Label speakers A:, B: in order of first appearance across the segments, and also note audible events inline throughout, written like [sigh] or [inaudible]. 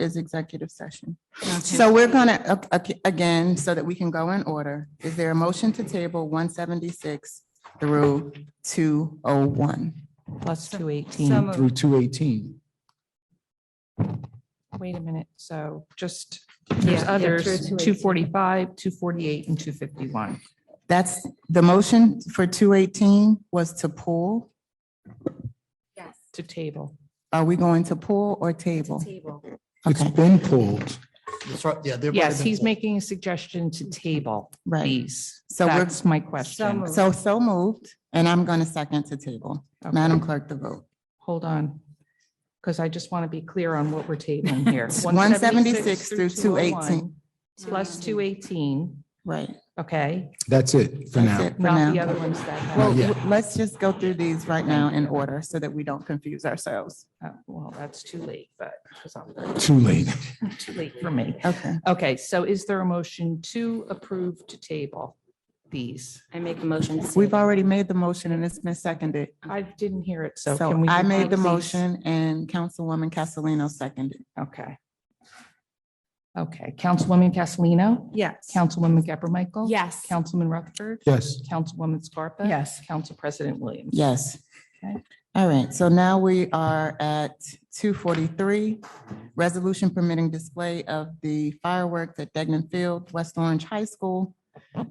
A: is executive session.
B: Okay.
A: So we're gonna, a- a- again, so that we can go in order, is there a motion to table one seventy-six through two oh one?
C: plus
B: So-
C: two
B: so
C: eighteen.
B: moved.
D: through two eighteen.
C: Wait a minute, so just,
B: Yeah,
C: there's
B: yeah, through
C: others,
B: 218.
C: two forty-five, two forty-eight, and two fifty-one.
A: That's, the motion for two eighteen was to pull.
E: Yes,
C: To table.
A: Are we going to pull or table?
E: table.
D: It's
A: Okay.
D: been pulled.
C: Yes, he's making a suggestion to table
A: Right.
C: these.
A: So we're-
C: That's my
B: So
C: question.
B: moved.
A: So, so moved, and I'm going to second to table.
C: Okay.
A: Madam Clerk, the vote.
C: Hold on, because I just want to be clear on what we're tabling here.
A: [laughs] 176 through 218.
C: 201, Plus two eighteen,
A: Right.
C: okay,
D: That's it for
A: That's
D: now.
A: it for
C: not the
A: now.
C: other ones that have.
A: Well,
D: Yeah.
A: w- let's just go through these right now in order so that we don't confuse ourselves.
C: Uh, Well, that's too late, but, because I'm
D: Too late.
C: too late for me.
A: Okay.
C: Okay, so is there a motion to approve to table these?
E: I make a motion. to
A: We've
E: table.
A: already made the motion and it's been seconded.
C: I didn't hear it, so can
A: So
C: we?
A: I made the
C: please-
A: motion and Councilwoman Castellino seconded.
C: Okay. Okay, Councilwoman Castellino?
B: Yes.
C: Councilwoman Gabor Michael?
E: Yes.
C: Councilman Rutherford?
D: Yes,
C: Councilwoman Scarpa?
B: Yes.
C: Council President Williams?
A: Yes.
C: Okay.
A: All right, so now we are at two forty-three. Resolution permitting display of the fireworks at Degnan Field, West Orange High School.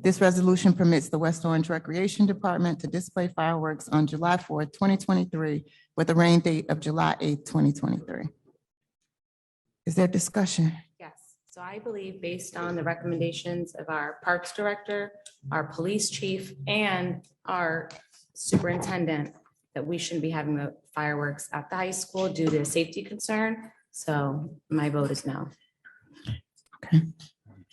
A: This resolution permits the West Orange Recreation Department to display fireworks on July fourth, twenty twenty-three with a rain date of July eighth, twenty twenty-three. Is there discussion?
E: Yes, so I believe based on the recommendations of our Parks Director, our Police Chief, and our Superintendent, that we shouldn't be having the fireworks at the high school due to a safety concern. So my vote is no.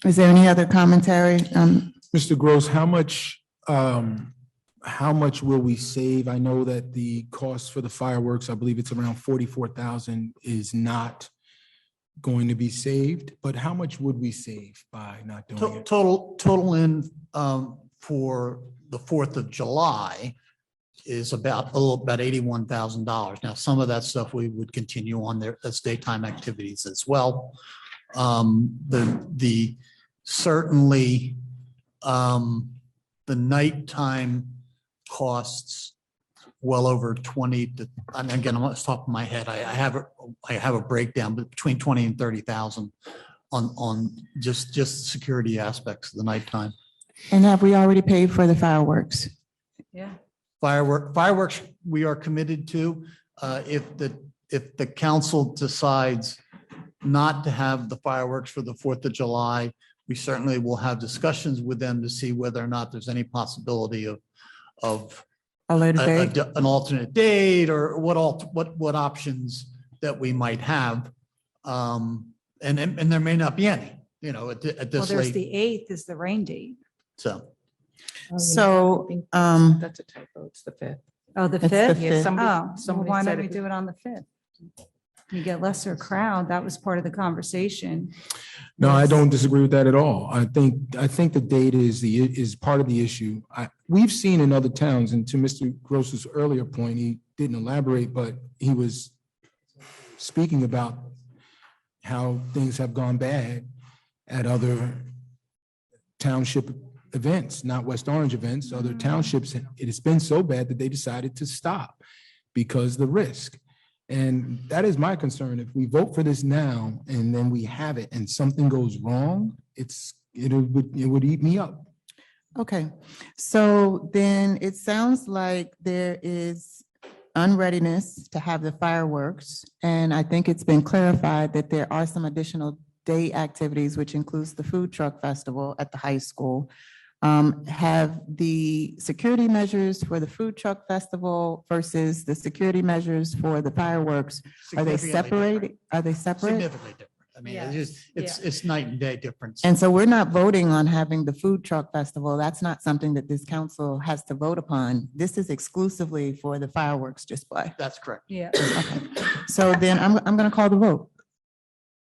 A: Is there any other commentary? Um,
D: Mr. Gross, how much, um, how much will we save? I know that the cost for the fireworks, I believe it's around forty-four thousand is not going to be saved, but how much would we save by not doing
F: To-
D: it?
F: Total, total in um, for the Fourth of July is about, oh, about eighty-one thousand dollars. Now, some of that stuff we would continue on there as daytime activities as well. Um, The, the, certainly um, the nighttime costs well over twenty to, and again, I'm off the top of my head, I I have, a- I have a breakdown, but between twenty and thirty thousand on, on just, just security aspects of the nighttime.
A: And have we already paid for the fireworks?
B: Yeah.
F: Firework, fireworks, we are committed to. Uh, If the, if the council decides not to have the fireworks for the Fourth of July, we certainly will have discussions with them to see whether or not there's any possibility of, of
A: A later
F: a- a
A: date?
F: d- an alternate date or what all, what, what options that we might have. Um, And, and and there may not be any, you know, at, thi- at
B: Well,
F: this
B: there's
F: late,
B: the eighth is the rain date.
F: so.
C: Oh, you know, I
A: So,
C: think
A: um,
C: That's a typo, it's the fifth.
B: Oh,
A: It's
B: the
A: the
B: fifth?
A: fifth.
C: Yeah, somebody-
B: Oh, so
C: somebody
B: why
C: said
B: don't we
C: it-
B: do it on the fifth? You get lesser crowd. That was part of the conversation.
D: No, I
B: Yes.
D: don't disagree with that at all. I think, I think the data is the, is part of the issue. I, we've seen in other towns, and to Mr. Gross's earlier point, he didn't elaborate, but he was speaking about how things have gone bad at other township events, not West Orange events, other townships. It has been so bad that they decided to stop because the risk. And that is my concern. If we vote for this now and then we have it and something goes wrong, it's, it would, it would eat me up.
A: okay, so then it sounds like there is unreadiness to have the fireworks. And I think it's been clarified that there are some additional day activities, which includes the food truck festival at the high school. Um, have the security measures for the food truck festival versus the security measures for the fireworks, are they
F: significantly different.
A: separated? Are they separate?
F: Significantly different. I mean,
B: Yeah.
F: it's just, it's, it's night and day difference.
A: And so we're not voting on having the food truck festival. That's not something that this council has to vote upon. This is exclusively for the fireworks display.
F: That's correct.
B: Yeah.
A: Okay. So then I'm, I'm going to call the vote.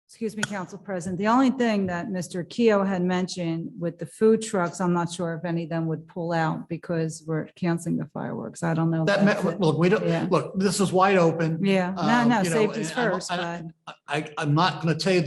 B: Excuse me, Council President. The only thing that Mr. Keo had mentioned with the food trucks, I'm not sure if any of them would pull out because we're canceling the fireworks. I don't know. if
F: That,
B: that's
F: ma-
B: it.
F: look, we
B: Yeah.
F: don't, look, this is wide open.
B: Yeah, no,
F: Um,
B: no,
F: you know,
B: safety's
F: and I'm-
B: first,
F: I-
B: but.
F: I, I'm not going to tell you